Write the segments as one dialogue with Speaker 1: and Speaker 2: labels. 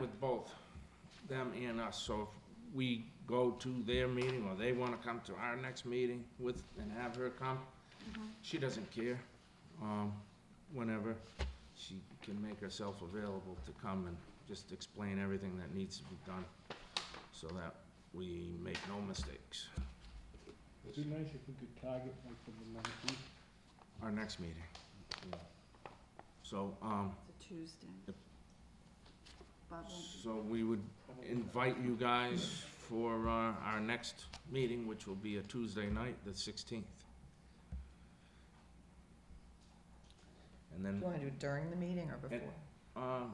Speaker 1: with both them and us, so if we go to their meeting, or they wanna come to our next meeting with, and have her come, she doesn't care, um, whenever she can make herself available to come and just explain everything that needs to be done, so that we make no mistakes,
Speaker 2: It'd be nice if we could target like from the nineteenth.
Speaker 1: our next meeting. yeah. So, um,
Speaker 3: It's a Tuesday.
Speaker 1: Yep.
Speaker 3: Bob won't be-
Speaker 1: so we would invite you guys for uh, our next meeting, which will be a Tuesday night, the 16th. And
Speaker 4: Do
Speaker 1: then,
Speaker 4: you want to do it during the meeting or before?
Speaker 1: uh,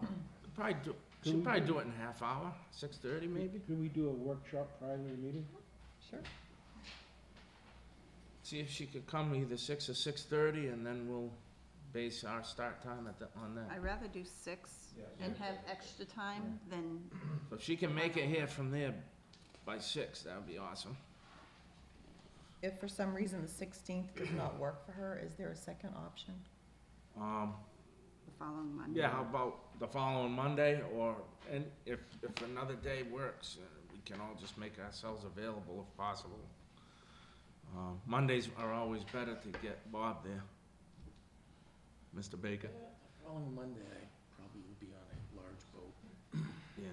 Speaker 1: probably do,
Speaker 2: Can
Speaker 1: should
Speaker 2: we
Speaker 1: probably
Speaker 2: do-
Speaker 1: do it in a half hour, 6:30 maybe?
Speaker 2: Could we do a workshop prior to the meeting?
Speaker 4: Sure.
Speaker 1: See if she could come either 6 or 6:30, and then we'll base our start time at the, on that.
Speaker 3: I'd rather do six and have extra time than,
Speaker 1: So if she can make it here from there by 6, that would be awesome.
Speaker 4: If for some reason the sixteenth does not work for her, is there a second option?
Speaker 1: Um,
Speaker 3: the following Monday.
Speaker 1: Yeah, how about the following Monday, or, and if, if another day works, uh, we can all just make ourselves available if possible. Uh, Mondays are always better to get Bob there. Mr. Baker?
Speaker 5: Following Monday, I probably will be on a large boat.
Speaker 1: Yeah.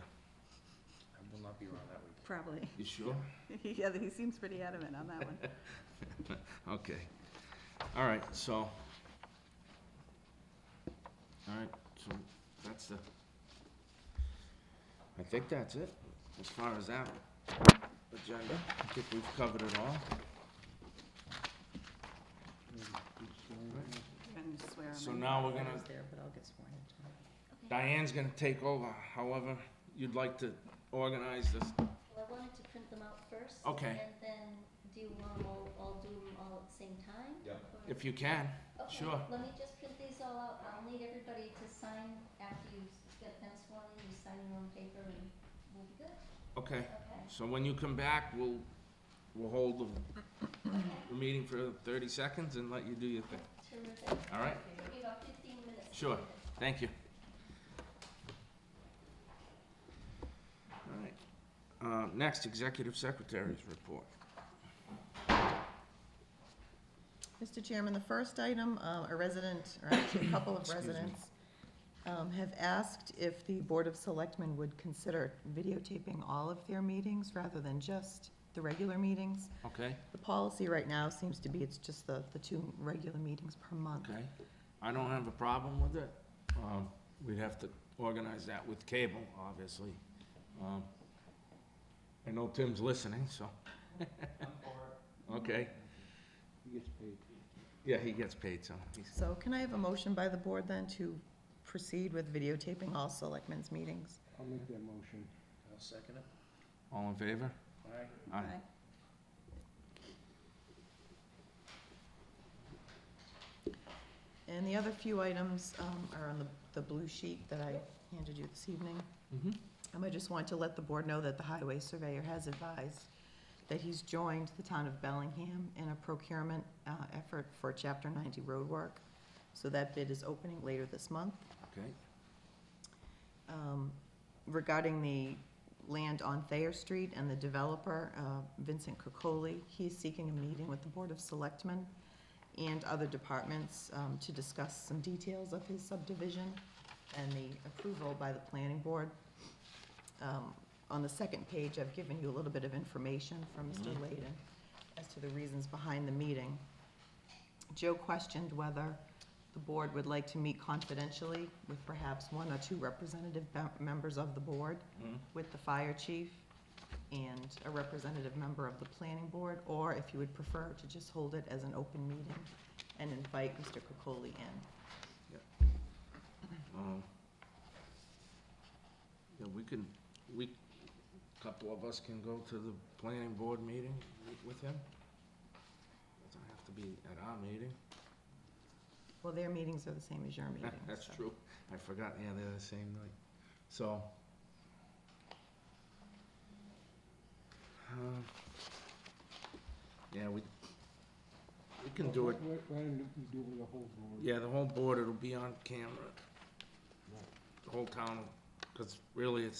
Speaker 5: I will not be around that weekend.
Speaker 3: Probably.
Speaker 1: You sure?
Speaker 3: Yeah, he seems pretty adamant on that one.
Speaker 1: Okay. All right, so. All right, so that's the. I think that's it, as far as that agenda. I think we've covered it all.
Speaker 3: You're gonna swear him
Speaker 1: So
Speaker 3: in.
Speaker 1: now we're
Speaker 4: I
Speaker 1: gonna,
Speaker 4: was there, but I'll get sworn in.
Speaker 1: Diane's gonna take over, however you'd like to organize this.
Speaker 6: Well, I wanted to print them out first.
Speaker 1: Okay.
Speaker 6: And then, do you want them all, all do them all at the same time? Yeah.
Speaker 1: If you can, sure.
Speaker 6: Okay, let me just print these all out, I'll need everybody to sign after you s- get them sworn in, you sign your own paper and we'll be good,
Speaker 1: Okay,
Speaker 6: okay?
Speaker 1: so when you come back, we'll, we'll hold the- the meeting for thirty seconds and let you do your thing.
Speaker 6: Terrific.
Speaker 1: All right.
Speaker 6: You got fifteen minutes. to
Speaker 1: Sure.
Speaker 6: do this.
Speaker 1: Thank you. All right. Uh, Next, Executive Secretary's report.
Speaker 4: Mr. Chairman, the first item, uh, a resident, or actually a couple of
Speaker 1: Excuse me.
Speaker 4: residents, um, have asked if the Board of Selectmen would consider videotaping all of their meetings rather than just the regular meetings.
Speaker 1: Okay,
Speaker 4: The policy right now seems to be it's just the, the two regular meetings per month.
Speaker 1: okay. I don't have a problem with it. Um, We'd have to organize that with cable, obviously. Um, I know Tim's listening, so. Okay,
Speaker 2: He gets paid.
Speaker 1: yeah, he gets paid, so. he's-
Speaker 4: So can I have a motion by the board then to proceed with videotaping all selectmen's meetings?
Speaker 2: I'll make that motion.
Speaker 5: I'll second it.
Speaker 1: All in favor?
Speaker 5: Aye.
Speaker 1: Aye.
Speaker 3: Aye.
Speaker 4: And the other few items um, are on the, the blue sheet that I handed you this evening.
Speaker 1: Mhm.
Speaker 4: Um, I just want to let the board know that the highway surveyor has advised that he's joined the town of Bellingham in a procurement uh, effort for Chapter 90 roadwork. So that bid is opening later this month.
Speaker 1: Okay,
Speaker 4: Um, Regarding the land on Thayer Street and the developer, uh, Vincent Cocoli, he is seeking a meeting with the Board of Selectmen and other departments um, to discuss some details of his subdivision and the approval by the planning board. Um, On the second page, I've given you a little bit of information from Mr.
Speaker 1: Mhm.
Speaker 4: Layden as to the reasons behind the meeting. Joe questioned whether the board would like to meet confidentially with perhaps one or two representative mem- members of the board,
Speaker 1: Mhm.
Speaker 4: with the fire chief and a representative member of the planning board, or if you would prefer to just hold it as an open meeting and invite Mr. Cocoli in.
Speaker 1: Um, Yeah, we can, we, couple of us can go to the planning board meeting wi- with him. Doesn't have to be at our meeting.
Speaker 4: Well, their meetings are the same as your meetings.
Speaker 1: That's
Speaker 4: so-
Speaker 1: true. I forgot, yeah, they're the same night. So. um, Yeah, we, we can do it,
Speaker 2: Why why don't we do it with the whole board?
Speaker 1: yeah, the whole board, it'll be on camera. The whole town, because really, it's